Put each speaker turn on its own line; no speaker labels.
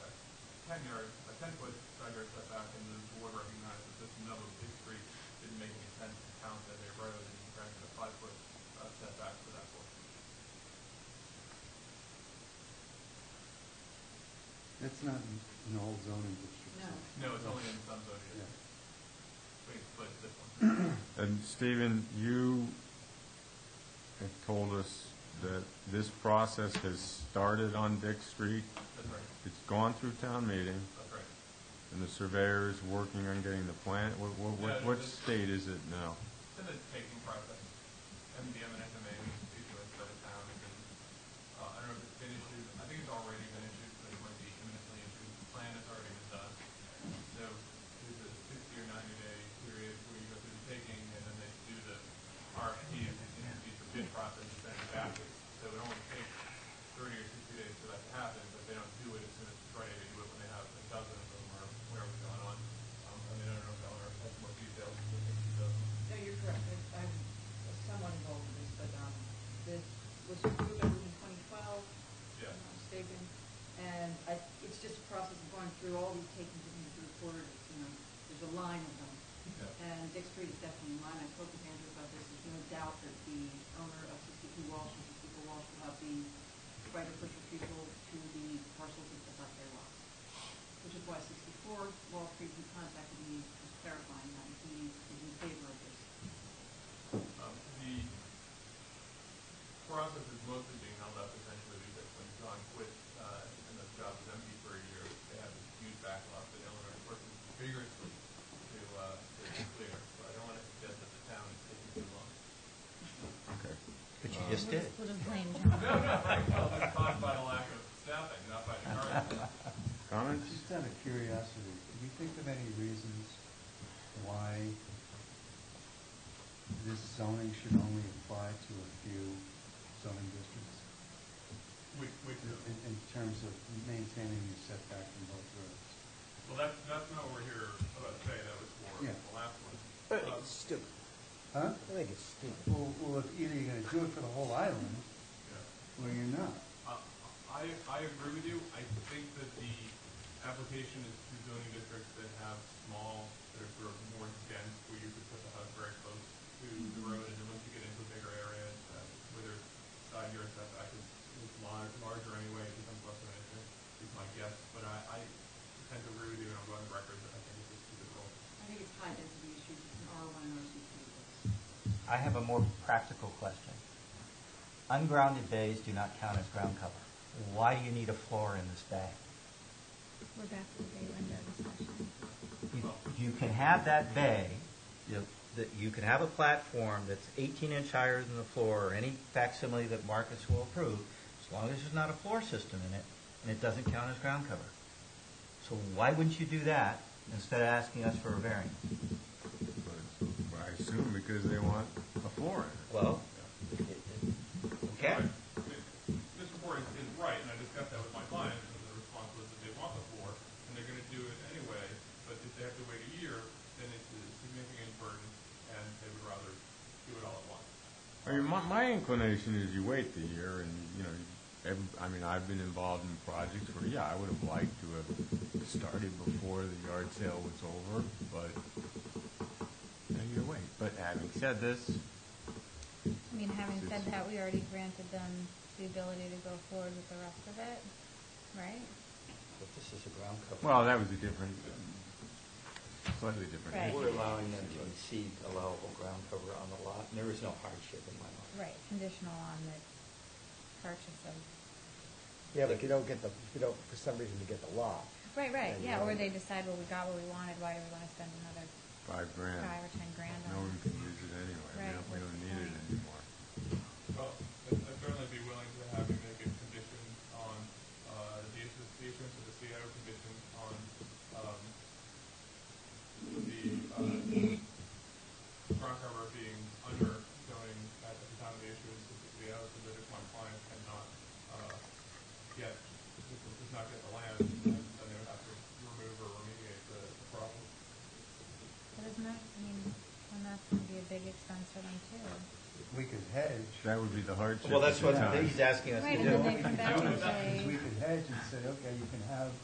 ten-yard, a ten-foot side yard setback, and the board recognized that this middle of Big Street didn't make any sense to count as a road, and granted a five-foot uh, setback for that portion.
That's not in all zoning districts.
No.
No, it's only in some zoning
Yeah.
districts. Wait, but this one.
And Stephen, you have told us that this process has started on Dick Street.
That's right,
It's gone through town meeting,
that's right.
and the surveyor is working on getting the plan. What, what-
Yeah,
what, what
it's-
state is it now?
It's in the taking process. MDM and SMA issuance by the town, and, uh, I don't know if it's been issued, I think it's already been issued, but it might be imminently issued. The plan has already been done. So there's a sixty or ninety day period where you go through the taking, and then they do the RFP, and it's the bid process, and send it back. So it only takes thirty or sixty days for that to happen, but they don't do it as soon as it's ready. They do it when they have a dozen of them or whatever's going on. Um, I mean, I don't know if Eleanor has more details, but I think she does.
No, you're correct. I- I'm somewhat involved in this, but um, this was approved, I believe, in 2012, if
Yeah.
I'm not mistaken. And I, it's just a process of going through all these takings that need to be recorded, you know, there's a line of them.
Yeah.
And Dick Street is definitely in line. I spoke with Andrew about this. There's no doubt that the owner of 62 Walsh and 64 Walsh will have the right of first refusal to the parcels that is not their lot. Which is why 64 Wall Street, who contacted me, was clarifying that he is in favor of this.
Um, the process is mostly being held up essentially because when John quit, uh, and the job was empty for a year, they had this huge backlog that Eleanor is working vigorously to, uh, to clear. So I don't want to suggest that the town is taking too long.
Okay.
But you just did.
Would have blamed
No, no, right, well, it's caused by the lack of staffing, not by encouragement.
Comments?
Just out of curiosity, do you think of any reasons why this zoning should only apply to a few zoning districts?
Which, which,
In, in terms of maintaining the setback from both roads?
well, that's, that's not what we're here about today, that was for
Yeah.
the last one.
I think
Um,
it's stupid.
Huh?
I think it's stupid.
Well, well, if either you're gonna do it for the whole island,
yeah.
or you're not.
Uh, I, I agree with you. I think that the application is to zoning districts that have small, that are sort of more dense, where you could put the house very close to the road, and then once you get into a bigger area, uh, where there's side yard setback is, is lar- larger anyway, it becomes less of an issue, is my guess. But I, I tend to agree with you, and I'm on the record that I think this is too difficult.
I think it's high density issues, it's an R1 or C2.
I have a more practical question. Ungrounded bays do not count as ground cover. Why do you need a floor in this bay?
We're back to the bay window discussion.
You- You can have that bay, you- that you can have a platform that's 18 inch higher than the floor, or any facsimile that Marcus will approve, as long as there's not a floor system in it, and it doesn't count as ground cover. So why wouldn't you do that instead of asking us for a variance?
But I assume because they want a floor in
Well, it- it- okay.
Mr. Ford is, is right, and I discussed that with my client, and the response was that they want the floor, and they're gonna do it anyway, but if they have to wait a year, then it's a significant burden, and they would rather do it all at once.
it. I mean, my, my inclination is you wait the year and, you know, every, I mean, I've been involved in projects where, yeah, I would have liked to have started before the yard sale was over, but, you know, you wait. But having said this,
I mean, having said that, we already granted them the ability to go forward with the rest of it, right?
But this is a ground cover.
Well, that was a different, slightly different.
Right.
issue.
We're allowing them to exceed allowable ground cover on the lot, and there is no hardship in my mind.
Right, conditional on the purchase of,
Yeah, but you don't get the, you don't, for some reason, you get the lot.
right, right,
And
yeah, or
then-
they decide, well, we got what we wanted, why do we want to spend another
Five grand.
five or ten grand
No
on
one
it?
can use it anyway. We
Right,
don't, we
what's
don't
the
need it
point?
anymore.
Well, I'd I'd certainly be willing to have you make a condition on, uh, the issuance, the issuance of the CO condition on, um, the, uh, ground cover being under zoning at the time of the issuance of the CO, so that if my client cannot, uh, get, does not get the land, then then they would have to remove or remediate the, the problem.
But isn't that, I mean, and that's going to be a big expense for them too.
We could hedge.
That would be the hardship.
Well, that's
at
what
the time.
he's asking us to
Right,
do.
and then they come back and
Because
say,
we could hedge and say, okay, you can have